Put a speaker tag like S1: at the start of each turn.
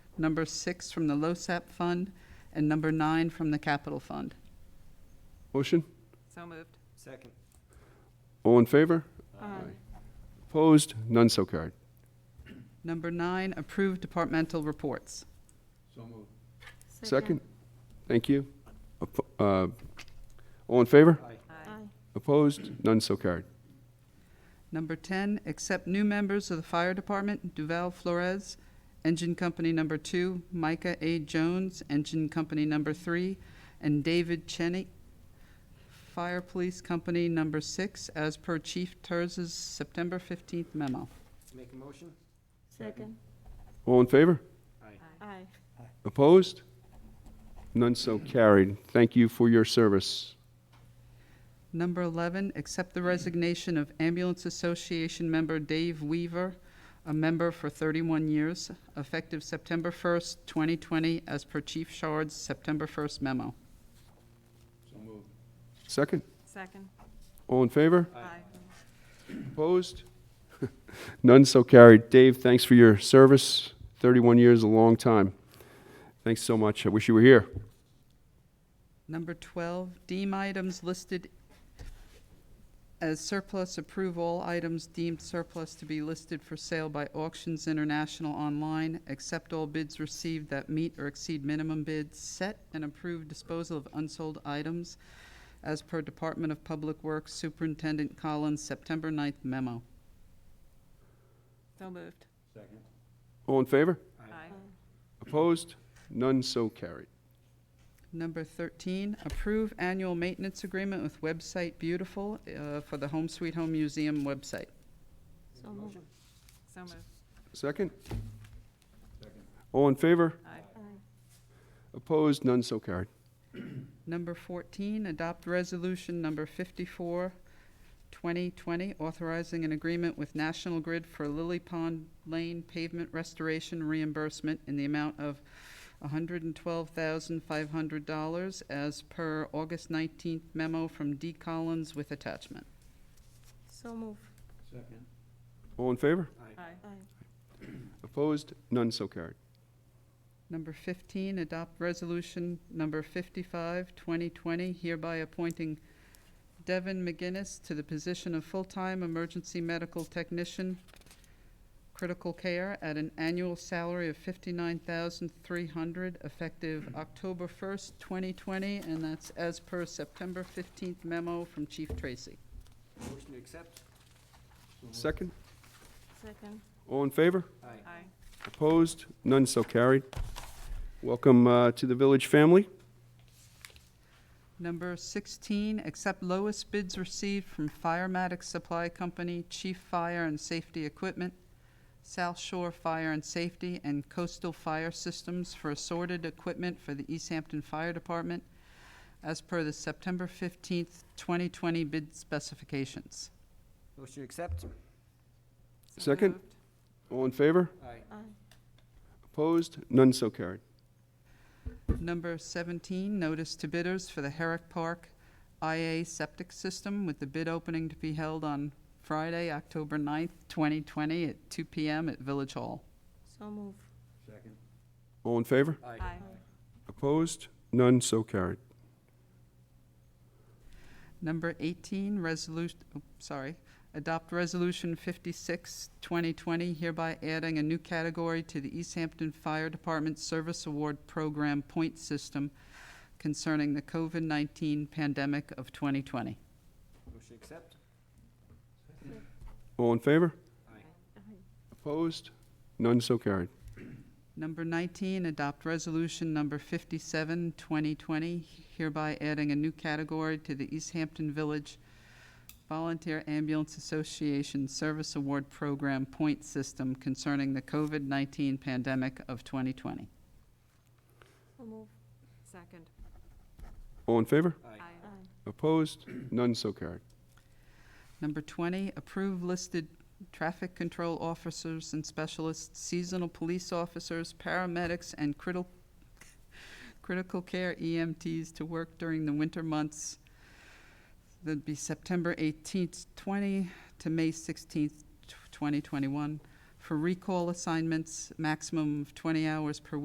S1: number six from the LoSAP fund, and number nine from the capital fund.
S2: Motion?
S3: So moved.
S4: Second.
S2: All in favor? Opposed? None so carried.
S1: Number nine, approve departmental reports.
S2: Second? Thank you. Oppo- uh, All in favor?
S4: Aye.
S3: Aye.
S2: Opposed? None so carried.
S1: Number 10, accept new members of the fire department, Duval Flores, engine company number two, Micah A. Jones, engine company number three, and David Cheney, fire police company number six, as per Chief Terz's September 15th memo.
S4: Make a motion?
S3: Second.
S2: All in favor?
S4: Aye.
S3: Aye.
S2: Opposed? None so carried. Thank you for your service.
S1: Number 11, accept the resignation of Ambulance Association member Dave Weaver, a member for 31 years, effective September 1st, 2020, as per Chief Shard's September 1st memo.
S2: Second?
S3: Second.
S2: All in favor?
S3: Aye.
S2: Opposed? None so carried. Dave, thanks for your service. 31 years, is a long time. Thanks so much. I wish you were here.
S1: Number 12, deem items listed as surplus, approve all items deemed surplus to be listed for sale by Auctions International online, accept all bids received that meet or exceed minimum bids, set and approve disposal of unsold items as per Department of Public Works Superintendent Collins' September 9th memo.
S3: So moved.
S4: Second.
S2: All in favor?
S3: Aye.
S2: Opposed? None so carried.
S1: Number 13, approve annual maintenance agreement with Website Beautiful uh, for the Home Sweet Home Museum website.
S4: So moved.
S3: So moved.
S2: Second? All in favor?
S3: Aye.
S2: Opposed? None so carried.
S1: Number 14, adopt resolution number 54, 2020, authorizing an agreement with National Grid for Lily Pond Lane pavement restoration reimbursement in the amount of $112,500 as per August 19th memo from D. Collins with attachment.
S3: So moved.
S4: Second.
S2: All in favor?
S4: Aye.
S3: Aye.
S2: Opposed? None so carried.
S1: Number 15, adopt resolution number 55, 2020, hereby appointing Devin McGinnis to the position of full-time emergency medical technician, critical care, at an annual salary of 59300 effective October 1st, 2020, and that's as per September 15th memo from Chief Tracy.
S4: Motion to accept?
S2: Second?
S3: Second.
S2: All in favor?
S4: Aye.
S3: Aye.
S2: Opposed? None so carried. Welcome uh, to the village family.
S1: Number 16, accept lowest bids received from Firematic Supply Company, Chief Fire and Safety Equipment, South Shore Fire and Safety, and Coastal Fire Systems for assorted equipment for the East Hampton Fire Department as per the September 15th, 2020 bid specifications.
S4: Motion to accept?
S3: So
S2: Second.
S3: moved.
S2: All in favor?
S4: Aye.
S2: Opposed? None so carried.
S1: Number 17, notice to bidders for the Herrick Park IA Septic System with the bid opening to be held on Friday, October 9th, 2020 at 2 PM at Village Hall.
S3: So moved.
S4: Second.
S2: All in favor?
S3: Aye.
S2: Opposed? None so carried.
S1: Number 18, resolution, sorry, adopt Resolution 56, 2020, hereby adding a new category to the East Hampton Fire Department Service Award Program point system concerning the COVID-19 pandemic of 2020.
S4: Motion to accept?
S2: All in favor?
S4: Aye.
S2: Opposed? None so carried.
S1: Number 19, adopt Resolution Number 57, 2020, hereby adding a new category to the East Hampton Village Volunteer Ambulance Association Service Award Program point system concerning the COVID-19 pandemic of 2020.
S3: So moved. Second.
S2: All in favor?
S4: Aye.
S2: Opposed? None so carried.
S1: Number 20, approve listed traffic control officers and specialists, seasonal police officers, paramedics, and critical, critical care EMTs to work during the winter months. That'd be September 18th, 20 to May 16th, 2021, for recall assignments, maximum of 20 hours per week.